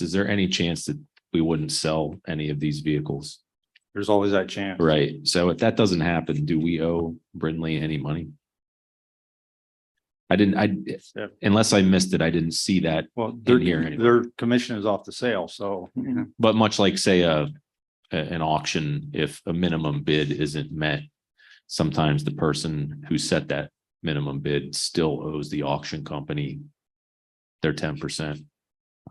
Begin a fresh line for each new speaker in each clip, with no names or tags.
is there any chance that we wouldn't sell any of these vehicles?
There's always that chance.
Right, so if that doesn't happen, do we owe Brindley any money? I didn't, I,
Yeah.
unless I missed it, I didn't see that,
Well, their,
here anyway. Mm-hmm.
their commission is off the sale, so.
but much like, say, a. a- an auction, if a minimum bid isn't met. Sometimes the person who set that minimum bid still owes the auction company. Their ten percent.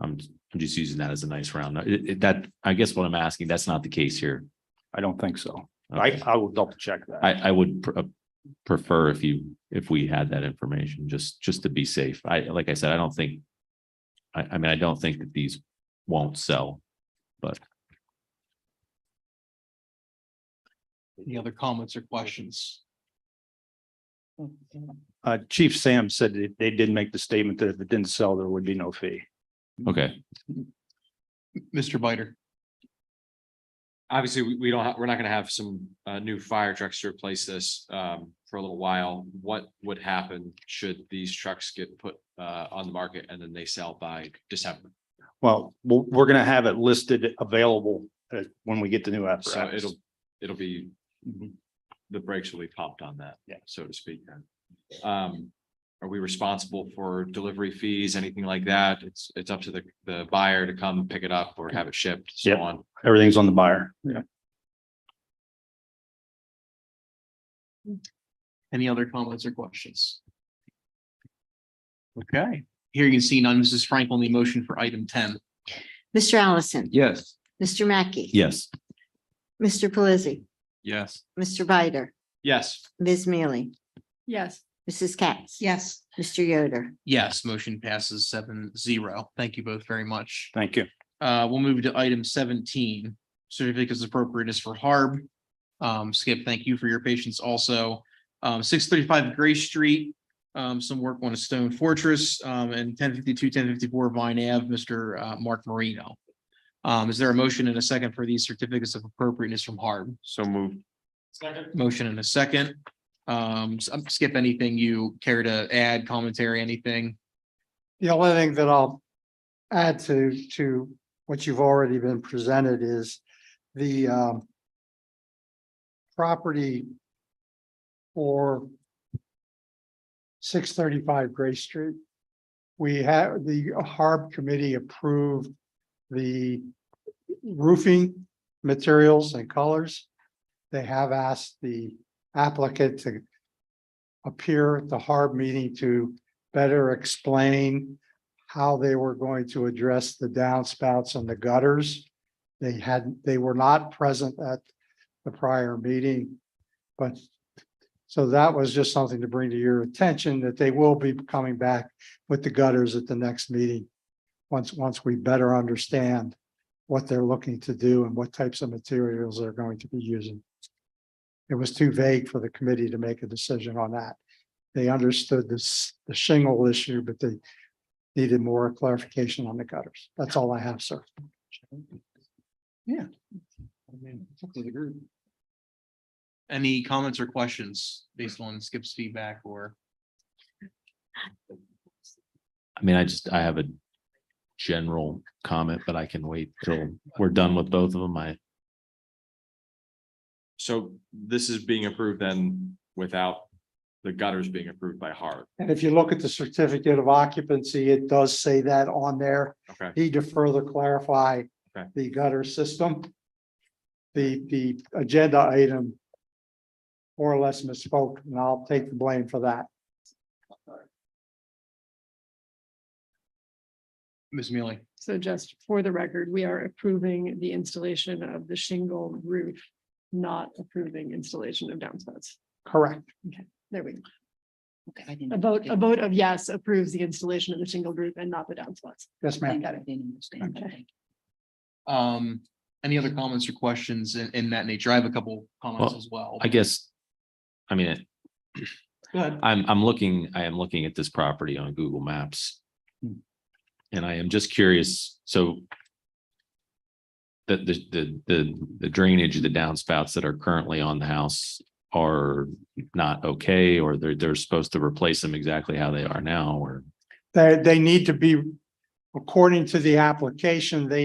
I'm, I'm just using that as a nice round. It- it- that, I guess what I'm asking, that's not the case here.
I don't think so. I,
Okay.
I will double check that.
I, I would pr- uh, prefer if you, if we had that information, just, just to be safe. I, like I said, I don't think. I, I mean, I don't think that these won't sell.
Any other comments or questions?
Uh, Chief Sam said that they did make the statement that if it didn't sell, there would be no fee.
Mm-hmm.
Okay,
Mr. Biter,
obviously, we, we don't, ha- we're not gonna have some, uh, new fire trucks to replace this, um, for a little while. What would happen should these trucks get put, uh, on the market and then they sell by December?
Well, we're, we're gonna have it listed available uh, when we get the new
So
apparatus.
it'll, it'll be,
Mhm.
the brakes will be popped on that.
Yeah.
So to speak. Um, are we responsible for delivery fees, anything like that? It's, it's up to the, the buyer to come pick it up or have it shipped, so
Yep.
on.
Everything's on the buyer. Yeah.
any other comments or questions? Okay, hearing and seeing none, Mrs. Frank on the motion for item ten.
Mr. Allison.
Yes.
Mr. Mackey.
yes.
Mr. Pelisi,
Yes.
Mr. Bider,
Yes.
Ms. Mealy,
Yes.
Mrs. Katz.
Yes.
Mr. Yoder.
Yes, motion passes seven zero. Thank you both very much.
Thank you.
Uh, we'll move to item seventeen, certificates of appropriateness for Harb. Um, Skip, thank you for your patience also. Um, six thirty-five Gray Street, um, some work on a stone fortress, um, and 1052, 1054 Vine Ave, Mr. uh, Mark Marino. Um, is there a motion and a second for these certificates of appropriateness from Harb?
So moved.
Motion and a second. Um, s- um, Skip, anything you care to add, commentary, anything?
The only thing that I'll add to, to what you've already been presented is the um, property for six thirty-five Gray Street. We have, the Harb Committee approved the roofing materials and colors. They have asked the applicant to appear at the Harb meeting to better explain how they were going to address the downspouts and the gutters. They had, they were not present at the prior meeting, but so that was just something to bring to your attention that they will be coming back with the gutters at the next meeting. Once, once we better understand what they're looking to do and what types of materials they're going to be using. It was too vague for the committee to make a decision on that they understood this, the shingle issue, but they needed more clarification on the gutters. That's all I have, sir.
I mean, it's up to the group. Any comments or questions based on Skip's feedback or?
I mean, I just, I have a general comment, but I can wait till we're done with both of them. I,
So this is being approved then without the gutters being approved by Harb.
And if you look at the certificate of occupancy, it does say that on there.
Okay.
Need to further clarify
Okay.
the gutter system. The, the agenda item more or less misspoke, and I'll take the blame for that.
Ms. Mealy,
So just for the record, we are approving the installation of the shingle roof, not approving installation of downspouts.
Correct.
There we go. A vote, a vote of yes approves the installation of the shingle roof and not the downspouts.
Yes, ma'am.
um, any other comments or questions in, in that nature? I have a couple comments
Well,
as well.
I guess. I mean,
Go ahead.
I'm, I'm looking, I am looking at this property on Google Maps. And I am just curious, so. The, the, the, the, the drainage, the downspouts that are currently on the house are not okay, or they're, they're supposed to replace them exactly how they are now, or.
They, they need to be According to the application, they